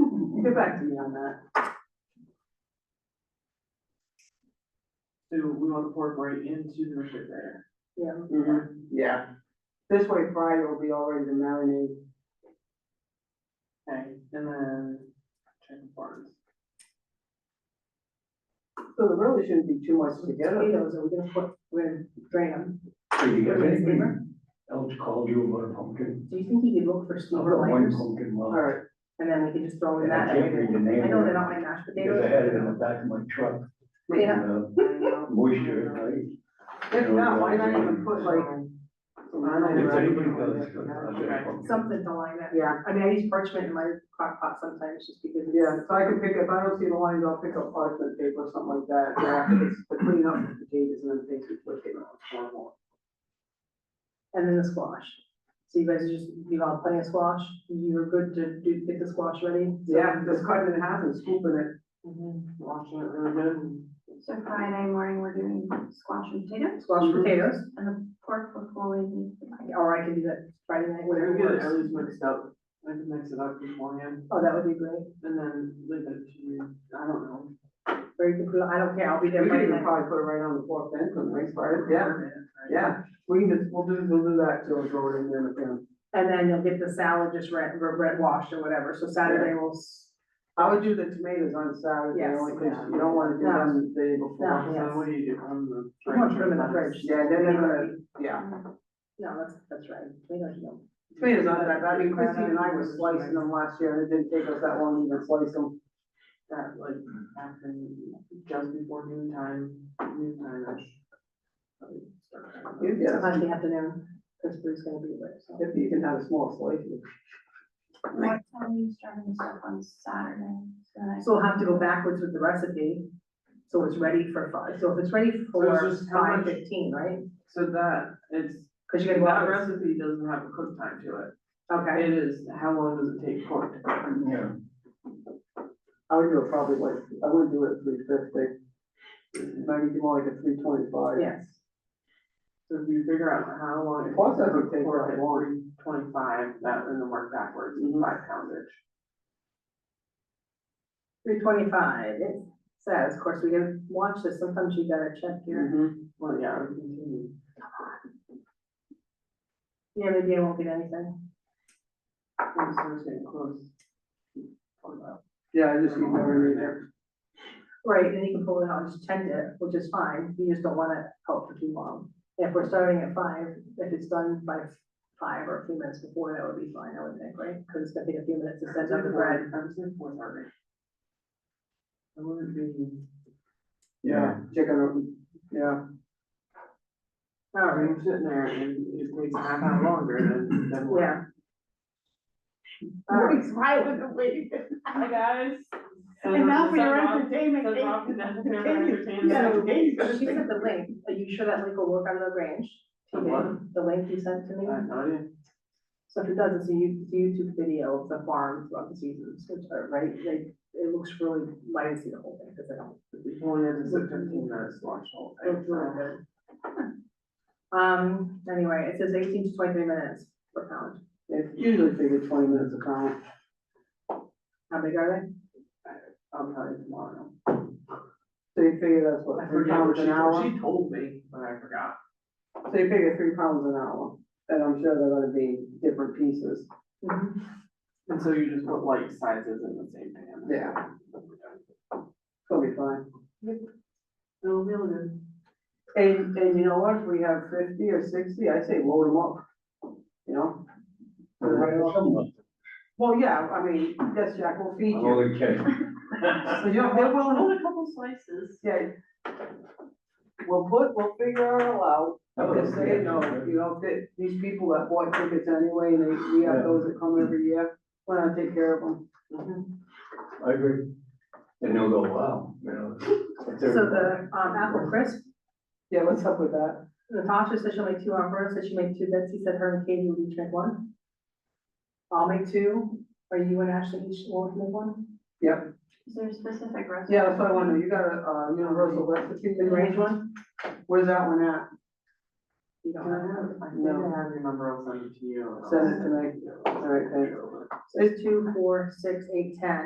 Mm-hmm. Get back to me on that. So we want to incorporate into the refrigerator. Yeah. Mm-hmm. Yeah. This way Friday will be already the marinade. Okay, and then chicken farms. So there really shouldn't be too much together. Tomatoes, are we gonna put, we're gonna drain them. So you Put it guys, in anybody steamer? else called you about a pumpkin? Do you think you could look for I snow brought one blinders? pumpkin All left, right, And then we could just throw in and I that. can't read the name. I know they're not my of mashed it, Because I potatoes. had it in the back of my truck. Yeah. and, uh, If Moisture, right? not, why not even put like. Yeah, If right. anybody does, uh, I'll get a pumpkin. Something to line that. yeah, I mean, I use parchment in my crock pot sometimes just because. yeah, so I can pick, if I don't see the lines, I'll pick up parchment paper or something like that, yeah, it's to clean up the potatoes and then things we put in. And then the squash. So you guys are just, you've all plenty of squash. You're good to do, get the squash ready. So- Yeah, just cutting it in half and scooping it, Mhm. washing it really good. and- So Friday morning, we're doing squash and potatoes, Squash Mm-hmm. potatoes, Uh-huh. and the pork was always. or I can do that Friday night, Whatever, whatever you get it at works. least mixed up, I can mix it up beforehand, Oh, that would be great. and then leave it to you, I don't know. Or you could, I don't care, I'll be We there could Friday even night. probably put it right on the pork then, couldn't we, Friday? yeah, yeah, we can just, we'll do, we'll do that till it's over in there with them. And then you'll get the salad just red, red washed or whatever. So Saturday we'll s- I would do the tomatoes on Saturday, Yes. only 'cause you don't wanna do them the day No. before. So yes. what do you do on the? I want to put them in the fridge? fridge. Yeah, then they're gonna, yeah. No, that's, that's right. They don't know. Tomatoes on that, I mean, Chrissy and I were slicing them last year, and it didn't take us that long to even slice them. That like after, just before noon time, noon time-ish. You get us, Sunday afternoon, because Bruce is gonna be there, so. if you can have a small slice. you- What time are you starting this up on Saturday? I- So we'll have to go backwards with the recipe, so it's ready for five, so if it's ready for just how five much- fifteen, right? So that, it's, Cause you gotta go that out, recipe doesn't have a cook time to it, okay, it is, how long does it take cooked? Yeah, I would do it probably like, I would do it three fifty. Maybe do more like a three twenty-five. yes, So if you figure out how long. it Plus, that would take for that long. Twenty-five, that, and then work backwards, Mhm. five poundage. three twenty-five, it says, of course, we can watch this, sometimes you gotta check your, Mhm. Well, yeah, we continue. yeah, maybe I won't get anything. I'm just gonna stay close. Hold on. Yeah, I just need more in there. Right, then you can pull it out and just tend it, which is fine, you just don't want it out for too long. If we're starting at five, if it's done by five or a few minutes before, that would be fine, I would think, right? Cause it's gonna take a few minutes to set up the bread. I was in fourth order. I wouldn't be. yeah, Chicken, yeah, All I right, mean, sitting there and it takes a half hour longer than, than. what- yeah. All right, Nobody's smiling and waving. Hi, guys. So And now does for your that rock- entertainment. does eh? rock and that's their Continue. entertainment. Yeah. she sent the link, are you sure that link will work on Lagrange? The what? The link you sent to I me, have no idea. so if it does, it's a You- it's a YouTube video of the farm throughout the seasons, which are, right, like, it looks really, I didn't see the whole thing, because I don't, We only had to sit fifteen minutes to watch the whole it thing. looks really so. good. Um, anyway, it says eighteen to twenty-three minutes per pound, it usually takes twenty minutes to count. how big are they? I'll tell you tomorrow. So you figure that's what, I three forget what pounds an hour? she, she told me, but I forgot. So you figure three pounds an hour, and I'm sure they're gonna be different pieces. Mhm. Mm-hmm. And so you just put like sizes in the same pan. Yeah. It'll be fine. It'll be good. And, and you know what, if we have fifty or sixty, I say load them up, you know? But right off the month, Well, yeah, I mean, yes, Jack will feed I'm you. only kidding. So you know, they're willing, Only a couple slices. yeah. We'll put, we'll figure it all out, just so you know, you know, that these people that bought tickets anyway, and they, we have those that come every year, we're gonna take care of them. I agree. And they'll go, wow, you know. it's So everybody. the, um, apple crisp, Yeah, what's up with that? Natasha said she'll make two, Alberta said she made two, Betsy said her and Katie would each make one. I'll make two, or you and Ashley each will make one, Is there a specific restaurant? Yeah, that's what I wonder, you got a, uh, universal recipe the in range, range one, where's that one at? you I don't have it. have, I think I have your number, I'll send it to you. Send it to me. All right, thanks. It's two, four, six, eight, ten,